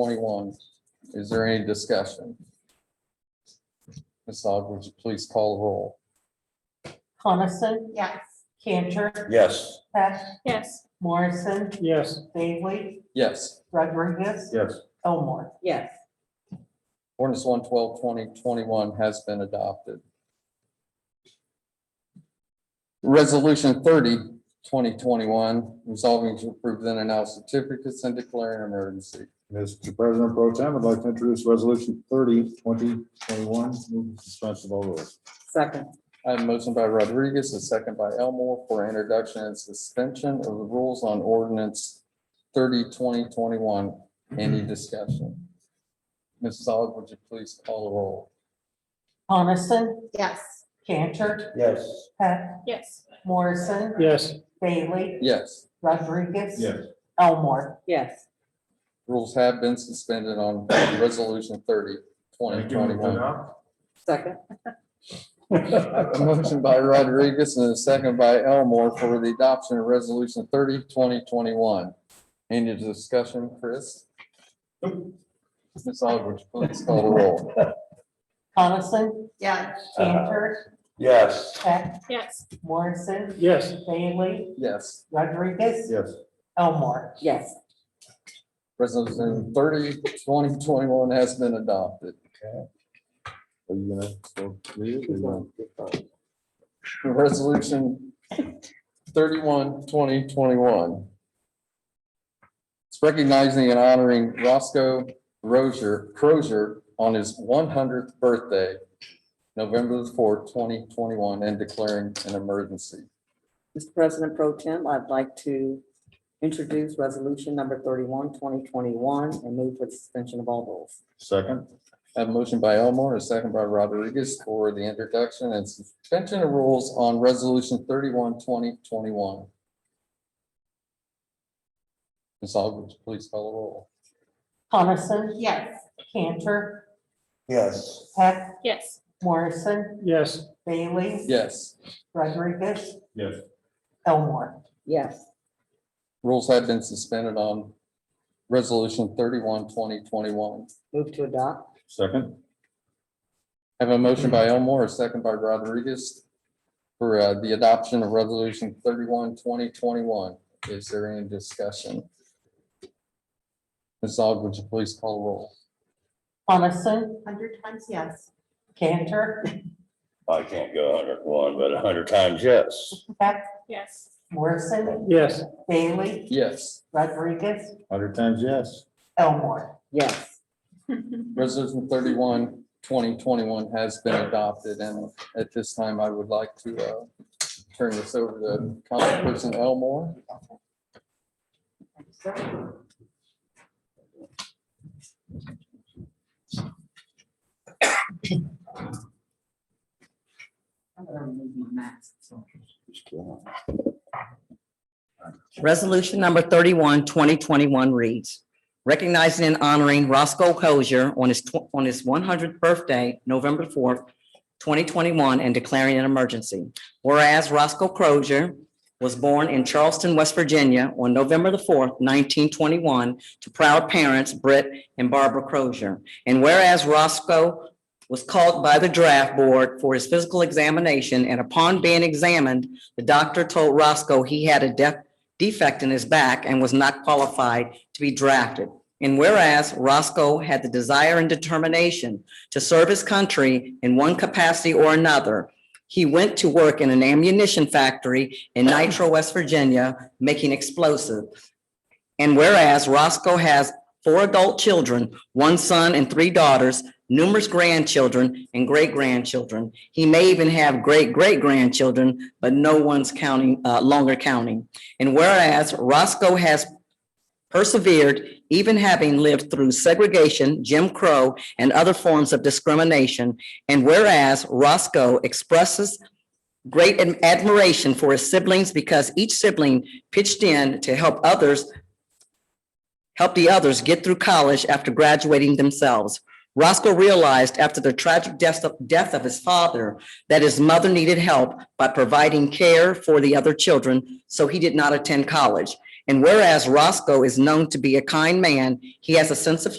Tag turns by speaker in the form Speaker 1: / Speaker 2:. Speaker 1: twenty-one. Is there any discussion? Ms. Og, would you please call the roll?
Speaker 2: Coniston,
Speaker 3: Yes.
Speaker 2: Cantor,
Speaker 4: Yes.
Speaker 2: Peck,
Speaker 3: Yes.
Speaker 2: Morrison,
Speaker 5: yes,
Speaker 2: Bailey,
Speaker 1: Yes,
Speaker 2: Rodriguez,
Speaker 4: Yes.
Speaker 2: Elmore.
Speaker 3: Yes.
Speaker 1: ordinance 112 2021 has been adopted. Resolution 30 2021 resolving to approve then and now certificates and declaring an emergency.
Speaker 4: Mr. President Pro Tem, I'd like to introduce Resolution 30, 2021, move to suspension of all rules.
Speaker 3: Second.
Speaker 1: I have a motion by Rodriguez, a second by Elmore for introduction and suspension of the rules on ordinance 30 2021. Any discussion? Mrs. Aug, would you please call the roll?
Speaker 2: Coniston,
Speaker 3: Yes.
Speaker 2: Cantor,
Speaker 4: Yes.
Speaker 2: Peck,
Speaker 3: Yes.
Speaker 2: Morrison,
Speaker 5: yes,
Speaker 2: Bailey,
Speaker 1: Yes,
Speaker 2: Rodriguez,
Speaker 4: Yes.
Speaker 2: Elmore.
Speaker 3: Yes.
Speaker 1: rules have been suspended on resolution 30 2021.
Speaker 3: Second.
Speaker 1: I have A motion by Rodriguez and a second by Elmore for the adoption of resolution 30 2021. Any discussion, Chris? Ms. Aug, would you please call the roll?
Speaker 2: Coniston,
Speaker 3: Yes.
Speaker 2: Cantor,
Speaker 4: Uh, Yes.
Speaker 2: Peck,
Speaker 3: Yes.
Speaker 2: Morrison,
Speaker 5: yes.
Speaker 2: Bailey,
Speaker 1: Yes,
Speaker 2: Rodriguez,
Speaker 4: Yes.
Speaker 2: Elmore.
Speaker 3: Yes.
Speaker 1: resolution 30 2021 has been adopted.
Speaker 4: Are you gonna still read it? or you gonna-
Speaker 1: Resolution 31 2021. It's recognizing and honoring Roscoe Rozier, Crozier on his one hundredth birthday, November the fourth, twenty twenty-one, and declaring an emergency.
Speaker 6: Mr. President Pro Tem, I'd like to introduce resolution number 31, 2021, and move for the suspension of all rules.
Speaker 4: Second?
Speaker 1: I Have a motion by Elmore, a second by Rodriguez for the introduction and suspension of rules on resolution 31 2021. Ms. Aug, please call the roll.
Speaker 2: Coniston,
Speaker 3: Yes.
Speaker 2: Cantor,
Speaker 4: Yes.
Speaker 2: Peck,
Speaker 3: Yes.
Speaker 2: Morrison,
Speaker 5: Yes,
Speaker 2: Bailey,
Speaker 1: Yes,
Speaker 2: Rodriguez,
Speaker 4: Yes.
Speaker 2: Elmore.
Speaker 6: Yes,
Speaker 1: rules have been suspended on resolution 31 2021.
Speaker 6: move to adopt.
Speaker 4: Second?
Speaker 1: I Have a motion by Elmore, a second by Rodriguez for uh, the adoption of resolution 31 2021. Is there any discussion? Ms. Aug, would you please call the roll?
Speaker 2: Coniston,
Speaker 3: Hundred times yes.
Speaker 2: Cantor,
Speaker 7: I can't go hundred one, but hundred times yes.
Speaker 2: Peck,
Speaker 3: Yes.
Speaker 2: Morrison,
Speaker 5: yes,
Speaker 2: Bailey,
Speaker 1: Yes,
Speaker 2: Rodriguez,
Speaker 4: Hundred times yes.
Speaker 2: Elmore.
Speaker 6: Yes,
Speaker 1: resolution 31 2021 has been adopted, and at this time, I would like to uh, turn this over to Councilperson Elmore.
Speaker 6: Resolution number 31, 2021 reads, recognizing and honoring Roscoe Crozier on his, tw- on his 100th birthday, November 4th, 2021, and declaring an emergency. Whereas Roscoe Crozier was born in Charleston, West Virginia on November the 4th, 1921, to proud parents Britt and Barbara Crozier. And whereas Roscoe was called by the draft board for his physical examination, and upon being examined, the doctor told Roscoe he had a deaf defect in his back and was not qualified to be drafted. And whereas Roscoe had the desire and determination to serve his country in one capacity or another, he went to work in an ammunition factory in Nitro, West Virginia, making explosive. And whereas Roscoe has four adult children, one son and three daughters, numerous grandchildren and great-grandchildren. He may even have great-great-grandchildren, but no one's counting, uh, longer counting. And whereas Roscoe has persevered, even having lived through segregation, Jim Crow, and other forms of discrimination. And whereas Roscoe expresses great ad- admiration for his siblings because each sibling pitched in to help others, help the others get through college after graduating themselves. Roscoe realized after the tragic death of, death of his father that his mother needed help by providing care for the other children, so he did not attend college. And whereas Roscoe is known to be a kind man, he has a sense of